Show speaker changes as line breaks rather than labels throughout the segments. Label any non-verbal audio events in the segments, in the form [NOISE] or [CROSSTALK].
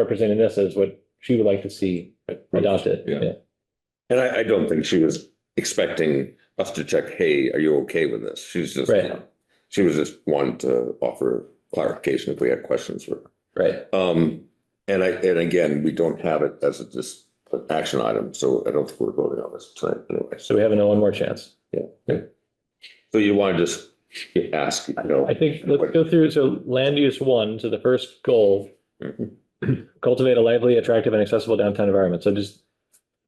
representing this as what she would like to see adopted.
Yeah.
And I, I don't think she was expecting us to check, hey, are you okay with this? She's just,
Right.
she was just wanting to offer clarification if we had questions for her.
Right.
Um, and I, and again, we don't have it as a just an action item, so I don't think we're voting on this tonight anyway.
So we have another one more chance.
So you want to just ask, you know,
I think, let's go through, so land use one, so the first goal. Cultivate a lively, attractive and accessible downtown environment. So just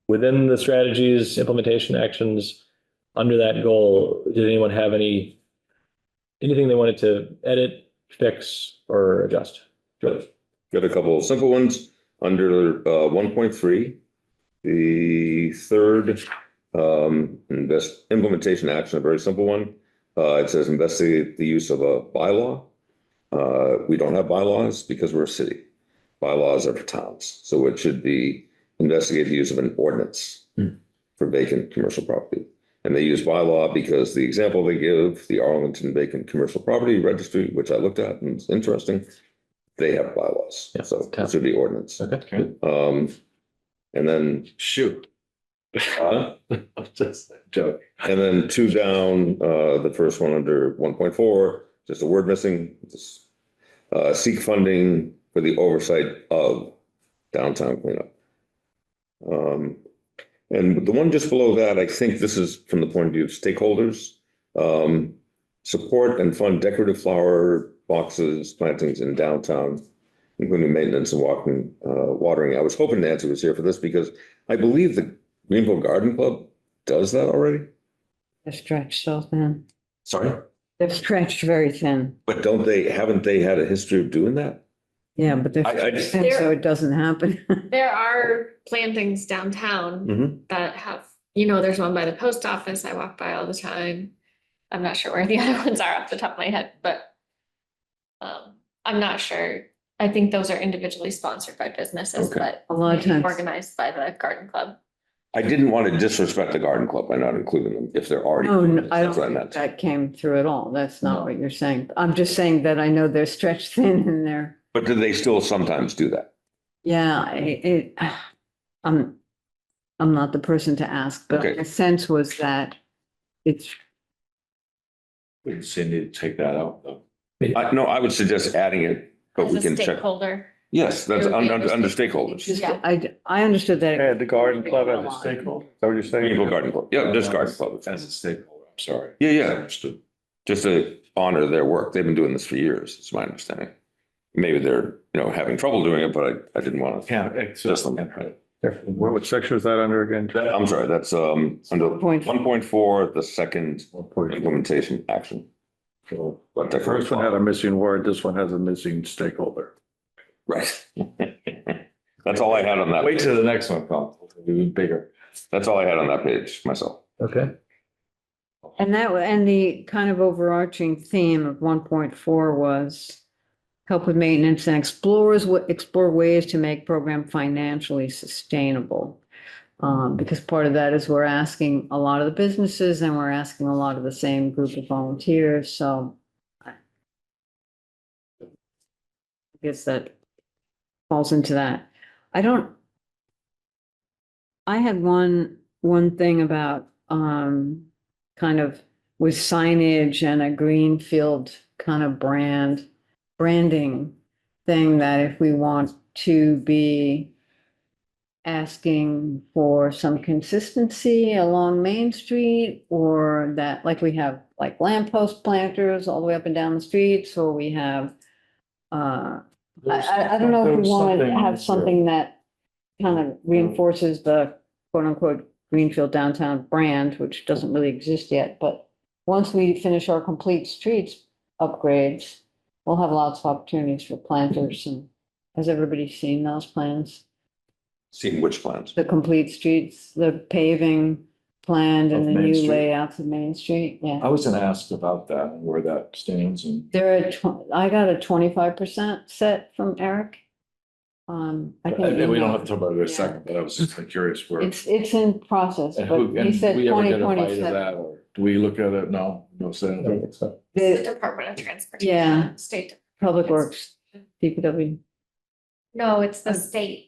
within the strategies, implementation actions, under that goal, did anyone have any? Anything they wanted to edit, fix or adjust?
got a couple of simple ones under, uh, one point three. The third, um, invest, implementation action, a very simple one. Uh, it says investigate the use of a bylaw. Uh, we don't have bylaws because we're a city. Bylaws are for towns, so it should be investigate the use of an ordinance
Hmm.
for vacant commercial property. And they use bylaw because the example they give, the Arlington Vacant Commercial Property Registry, which I looked at and it's interesting, they have bylaws,
Yeah,
so
town.
it should be ordinance.
Okay.
Um, and then uh,
Shoot. [LAUGHS]
Huh?
I'm just joking.
And then two down, uh, the first one under one point four, just a word missing, just. Uh, seek funding for the oversight of downtown cleanup. Um, and the one just below that, I think this is from the point of view of stakeholders. Um, support and fund decorative flower boxes, plantings in downtown. Including maintenance and walking, uh, watering. I was hoping Nancy was here for this because I believe the Greenville Garden Club does that already.
They're stretched so thin.
Sorry?
They're stretched very thin.
But don't they, haven't they had a history of doing that?
Yeah, but they're,
I- I
stretched
just-
thin, so it doesn't [LAUGHS] happen.
There are plantings downtown
Mm-hmm.
that have, you know, there's one by the post office. I walk by all the time. I'm not sure where the [LAUGHS] other ones are off the top of my head, but um, I'm not sure. I think those are individually sponsored by businesses,
Okay.
but
A lot of times.
organized by the garden club.
I didn't want to disrespect the garden club by not including them if they're already.
Oh,
No, no, I don't
That's what I
think
meant.
that came through at all. That's
No.
not what you're saying. I'm just saying that I know they're stretched [LAUGHS] thin and they're,
But do they still sometimes do that?
yeah, I- it, [SIGHS] I'm, I'm not the person to ask, but
Okay.
my sense was that it's,
We just need to take that out though.
I, no, I would suggest adding it, but
As
we
a
can check.
stakeholder,
Yes, that's
It would be
under, under under
it's
stakeholders.
just,
Yeah.
I, I understood that.
Yeah,
it-
the garden club as a stakeholder, is that what you're saying?
Greenville Garden Club, yeah, just garden club.
As a stakeholder, I'm sorry.
Yeah, yeah,
Understood.
just to honor their work. They've been doing this for years, it's my understanding. Maybe they're, you know, having trouble doing it, but I, I didn't want to.
Yeah, it's
Just
just.
on that
What what section is that under again?
I'm sorry, that's, um, under
Point.
one point four, the second implementation action. But
The first one had a missing word, this one has a missing stakeholder.
Right. [LAUGHS] That's all I had on that.
Wait
page.
till the next one comes, it'll be bigger.
That's all I had on that page myself.
Okay.
And that, wa- and the kind of overarching theme of one point four was help with maintenance and explores, wa- explore ways to make program financially sustainable. Um, because part of that is we're asking a lot of the businesses and we're asking a lot of the same group of volunteers, so. I Guess that falls into that. I don't. I had one, one thing about, um, kind of with signage and a green field kind of brand, branding thing that if we want to be asking for some consistency along Main Street or that, like we have like lamppost planters all the way up and down the streets, or we have, uh, I, I, I don't know if we want to have something that kind of reinforces the quote unquote Greenfield downtown brand, which doesn't really exist yet, but once we finish our complete streets upgrades, we'll have lots of opportunities for planters and has everybody seen those plans?
Seeing which plans.
The complete streets, the paving planned and
Of
the
Main
new
Street. Uh,
layouts of Main Street, yeah.
I was gonna ask about that, and where that stands and.
There are, tw- I got a twenty-five percent set from Eric. Um, I can.
And we don't
email.
have to talk about it in a
Yeah.
second, but I was just curious where.
It's, it's in process,
and
but
who-
he
and
said
we ever get
twenty
a bite of
twenty-seven.
that, or Do we look at it? No, no, so.
it's the
The
Department of Transportation,
Yeah.
State.
Public Works, DPW. Um,
No, it's the state.